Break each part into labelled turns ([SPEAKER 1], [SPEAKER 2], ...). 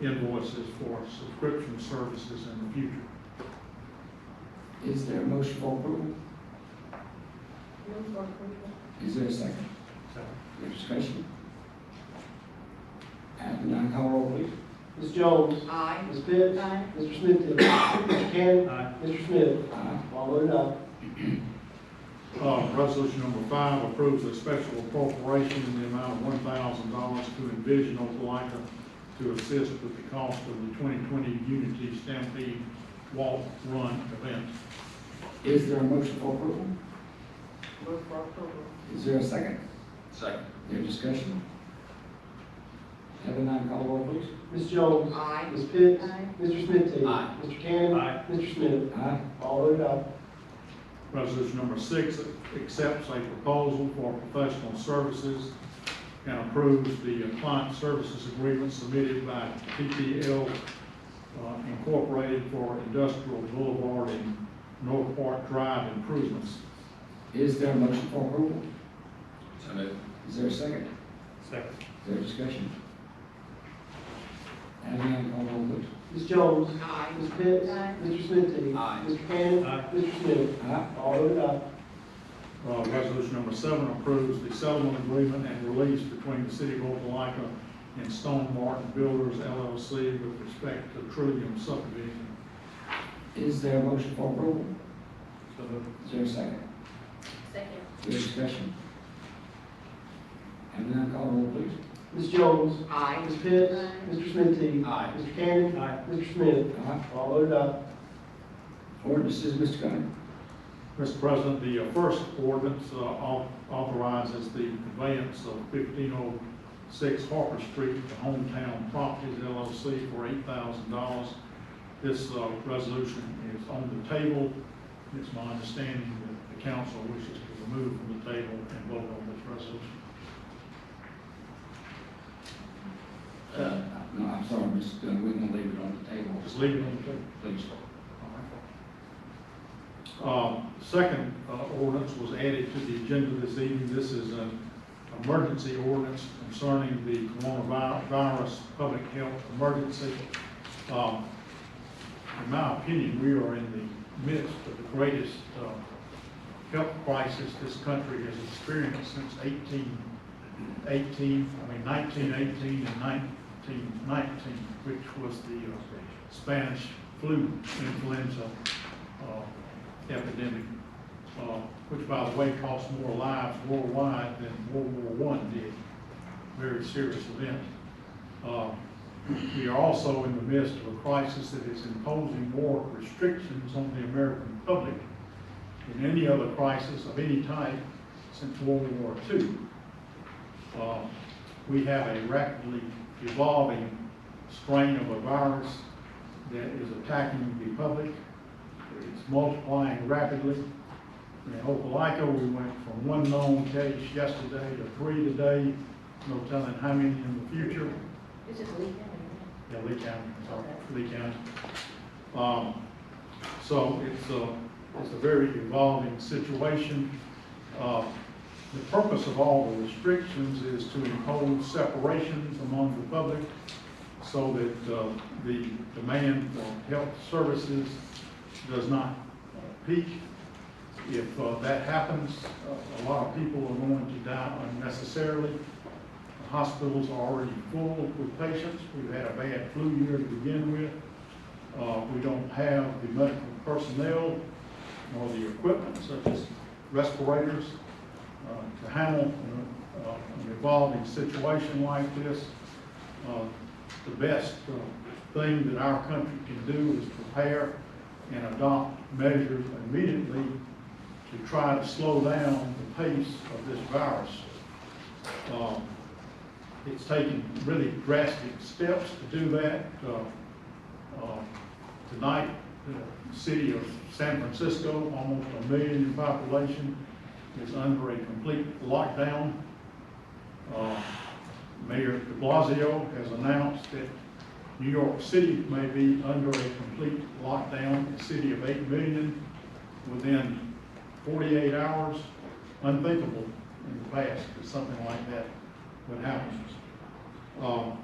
[SPEAKER 1] invoices for subscription services in the future.
[SPEAKER 2] Is there a motion for approval?
[SPEAKER 3] Move for approval.
[SPEAKER 2] Is there a second?
[SPEAKER 1] So,
[SPEAKER 2] Any discussion? Adam, nine call roll, please.
[SPEAKER 4] Ms. Jones.
[SPEAKER 3] Aye.
[SPEAKER 4] Ms. Pitts.
[SPEAKER 3] Aye.
[SPEAKER 4] Mr. Smith. Mr. Cannon.
[SPEAKER 1] Aye.
[SPEAKER 4] Mr. Smith.
[SPEAKER 2] Aye.
[SPEAKER 4] All voted aye.
[SPEAKER 1] Uh, resolution number five approves a special appropriation in the amount of one thousand dollars to envision Opelika to assist with the cost of the twenty twenty Unity Stampede Walk Run event.
[SPEAKER 2] Is there a motion for approval?
[SPEAKER 3] Move for approval.
[SPEAKER 2] Is there a second?
[SPEAKER 5] Second.
[SPEAKER 2] Any discussion? Adam, nine call roll, please.
[SPEAKER 4] Ms. Jones.
[SPEAKER 3] Aye.
[SPEAKER 4] Ms. Pitts.
[SPEAKER 3] Aye.
[SPEAKER 4] Mr. Smith.
[SPEAKER 5] Aye.
[SPEAKER 4] Mr. Cannon.
[SPEAKER 1] Aye.
[SPEAKER 4] Mr. Smith.
[SPEAKER 2] Aye.
[SPEAKER 4] All voted aye.
[SPEAKER 1] Resolution number six accepts a proposal for professional services and approves the client services agreement submitted by PPL uh, Incorporated for Industrial Boulevard and North Park Drive improvements.
[SPEAKER 2] Is there a motion for approval?
[SPEAKER 5] So moved.
[SPEAKER 2] Is there a second?
[SPEAKER 1] Second.
[SPEAKER 2] Is there a discussion? Adam, nine call roll, please.
[SPEAKER 4] Ms. Jones.
[SPEAKER 3] Aye.
[SPEAKER 4] Ms. Pitts.
[SPEAKER 3] Aye.
[SPEAKER 4] Mr. Smith.
[SPEAKER 5] Aye.
[SPEAKER 4] Mr. Cannon.
[SPEAKER 1] Aye.
[SPEAKER 4] Mr. Smith.
[SPEAKER 2] Aye.
[SPEAKER 4] All voted aye.
[SPEAKER 1] Uh, Resolution number seven approves the settlement agreement and release between the City of Opelika and Stone Martin Builders LLC with respect to Trillium subdivision.
[SPEAKER 2] Is there a motion for approval?
[SPEAKER 1] So moved.
[SPEAKER 2] Is there a second?
[SPEAKER 3] Second.
[SPEAKER 2] Is there discussion? Adam, nine call roll, please.
[SPEAKER 4] Ms. Jones.
[SPEAKER 3] Aye.
[SPEAKER 4] Ms. Pitts.
[SPEAKER 3] Aye.
[SPEAKER 4] Mr. Smith.
[SPEAKER 5] Aye.
[SPEAKER 4] Mr. Cannon.
[SPEAKER 1] Aye.
[SPEAKER 4] Mr. Smith.
[SPEAKER 2] Aye.
[SPEAKER 4] All voted aye.
[SPEAKER 2] Ordinances, Mr. Gunner.
[SPEAKER 1] Mr. President, the uh, first ordinance uh, au- authorizes the conveyance of fifteen oh six Harper Street to Hometown Properties LLC for eight thousand dollars. This uh, resolution is on the table. It's my understanding that the council wishes to remove from the table and vote on this resolution.
[SPEAKER 2] Uh, No, I'm sorry, Mr. Gunner, we're gonna leave it on the table,
[SPEAKER 1] Just leave it on the table.
[SPEAKER 2] please.
[SPEAKER 1] Um, Second uh, ordinance was added to the agenda this evening. This is an emergency ordinance concerning the coronavirus public health emergency. Um, In my opinion, we are in the midst of the greatest uh, health crisis this country has experienced since 1818, I mean 1918 and 1919, which was the uh, Spanish flu influenza uh, epidemic, uh, which by the way cost more lives worldwide than World War I did. Very serious event. Uh, We are also in the midst of a crisis that is imposing more restrictions on the American public than any other crisis of any type since World War II. Uh, We have a rapidly evolving strain of a virus that is attacking the public. It's multiplying rapidly. In Opelika, we went from one known case yesterday to three today, no telling how many in the future.
[SPEAKER 3] It's just leaving.
[SPEAKER 1] Yeah, Lee County, sorry, Lee County. Um, so it's a, it's a very evolving situation. Uh, the purpose of all the restrictions is to impose separations among the public so that, uh, the demand for health services does not peak. If, uh, that happens, a- a lot of people are going to die unnecessarily. The Hospitals are already full with patients. We've had a bad flu year to begin with. Uh, we don't have the medical personnel nor the equipment such as respirators uh, to handle uh, uh, an evolving situation like this. Uh, The best uh, thing that our country can do is prepare and adopt measures immediately to try to slow down the pace of this virus. Um, it's taken really drastic steps to do that. Uh, uh, Tonight, the city of San Francisco, almost a million in population, is under a complete lockdown. Uh, Mayor de Blasio has announced that New York City may be under a complete lockdown, a city of eight million, within forty-eight hours. Unthinkable in the past that something like that would happen. Um,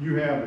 [SPEAKER 1] You have